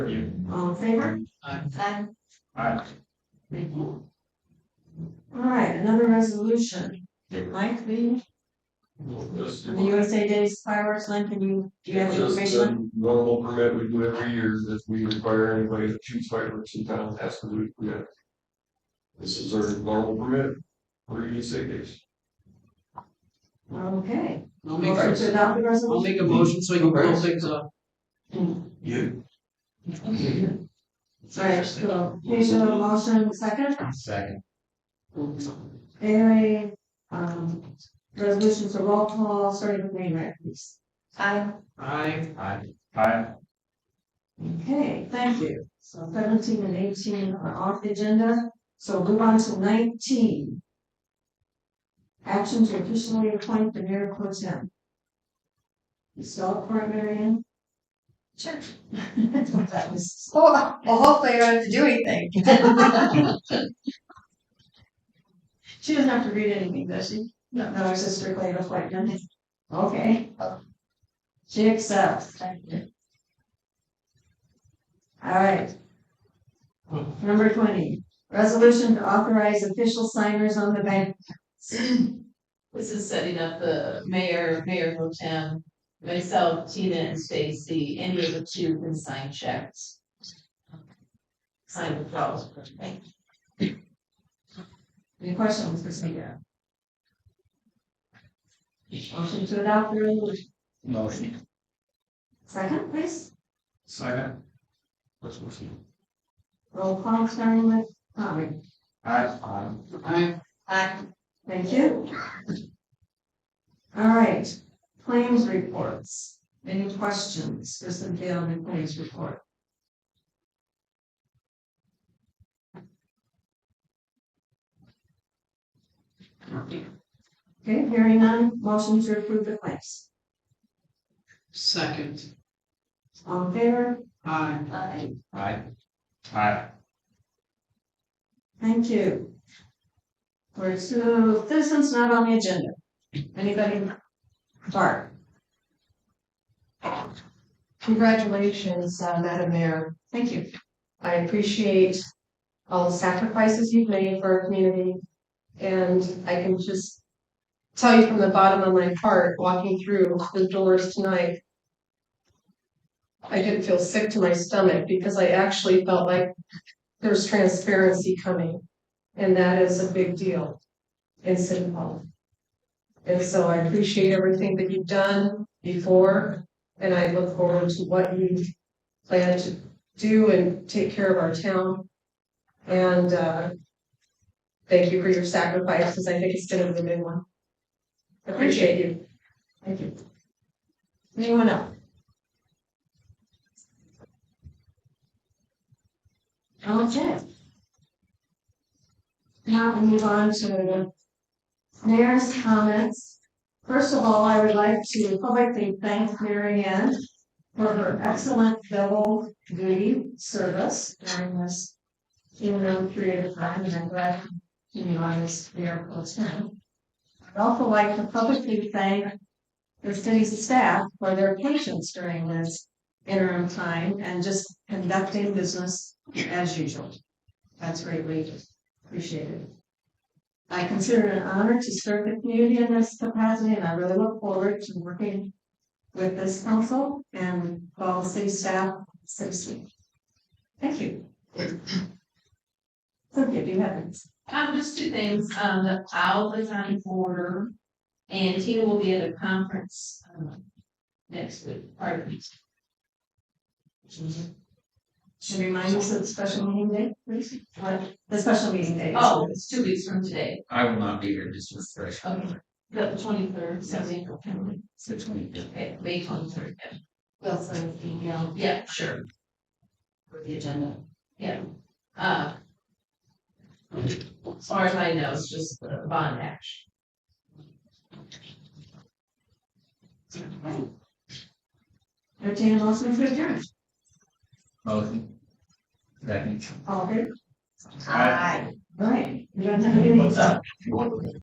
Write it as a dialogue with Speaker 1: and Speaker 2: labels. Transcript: Speaker 1: All in favor?
Speaker 2: Aye.
Speaker 1: Aye.
Speaker 3: Aye.
Speaker 1: Thank you. All right, another resolution. Did Mike be,
Speaker 3: Just-
Speaker 1: the USA Days fireworks, Lynn, can you, do you have
Speaker 3: Just
Speaker 1: information?
Speaker 3: a normal permit we do every year that we require anybody that shoots fireworks in town has to do it. We have- This is our normal permit, for you say days.
Speaker 1: Okay.
Speaker 2: I'll make,
Speaker 1: Motion to
Speaker 2: a-
Speaker 1: adopt the
Speaker 2: I'll
Speaker 1: resolution?
Speaker 2: make a motion so we can pull things up.
Speaker 3: You.
Speaker 1: Right, so, here's a motion, second,
Speaker 4: Second.
Speaker 1: Anyway, um, resolutions are roll call, starting with name, right, please. Aye.
Speaker 2: Aye.
Speaker 4: Aye.
Speaker 3: Aye.
Speaker 1: Okay, thank you. So seventeen and eighteen are off the agenda, so move on to nineteen. Action to officially appoint the mayor pro tem. You still up for it, Mary Ann? Sure. I thought that was. Well, hopefully I don't have to do anything. She doesn't have to read anything, does she? No. No, it's just strictly an appointment. Okay. She accepts. Thank you. All right. Number twenty, resolution to authorize official signers on the bank.
Speaker 5: This is setting up the mayor, Mayor Potem, myself, Tina and Stacy, any of the two can sign checks. Sign the files for me.
Speaker 1: Any questions for Cynthia? Motion to adopt the resolution.
Speaker 4: Motion.
Speaker 1: Second, please.
Speaker 3: Second. Let's move.
Speaker 1: Roll call starting with uh, Tommy.
Speaker 3: Aye.
Speaker 2: Aye.
Speaker 5: Aye.
Speaker 1: Thank you. All right, claims reports. Any questions for Cynthia on the claims report? Okay, hearing none, motion to approve the claims.
Speaker 2: Second.
Speaker 1: All in favor?
Speaker 2: Aye.
Speaker 5: Aye.
Speaker 4: Aye.
Speaker 3: Aye.
Speaker 1: Thank you. We're to citizens not on the agenda. Anybody? Bart?
Speaker 6: Congratulations, uh, Madam Mayor.
Speaker 1: Thank you.
Speaker 6: I appreciate all the sacrifices you've made for our community. And I can just tell you from the bottom of my heart, walking through the doors tonight, I didn't feel sick to my stomach because I actually felt like there's transparency coming. And that is a big deal in City Hall. And so I appreciate everything that you've done before, and I look forward to what you plan to do and take care of our town. And uh, thank you for your sacrifice, because I think it's been a really big one. Appreciate you.
Speaker 1: Thank you. Anyone else? Okay. Now we move on to the mayor's comments. First of all, I would like to publicly thank Mary Ann for her excellent double duty service during this interim period of time, and I'm glad you knew I was there full time. I'd also like to publicly thank the city's staff for their patience during this interim time and just conducting business as usual. That's greatly appreciated. I consider it an honor to serve the community in this capacity, and I really look forward to working with this council and all city staff, citizen. Thank you. Cynthia, do you have any?
Speaker 5: Um, just two things, um, the plow is on order, and Tina will be at a conference, um, next week, pardon me.
Speaker 1: Should remind us of the special meeting day, please? What, the special meeting day?
Speaker 5: Oh, it's two weeks from today,
Speaker 4: I will not be here, just for fresh.
Speaker 5: Okay. the twenty-third, Sunday,
Speaker 4: Six twenty.
Speaker 5: okay, May twenty-third, yeah.
Speaker 1: We'll send an email
Speaker 5: Yeah, sure.
Speaker 1: for the agenda.
Speaker 5: Uh. As far as I know, it's just the bond action.
Speaker 1: Entertained a motion for adjournment.
Speaker 4: Motion. Second.
Speaker 1: All good?
Speaker 3: Aye.
Speaker 1: Right, you don't have any.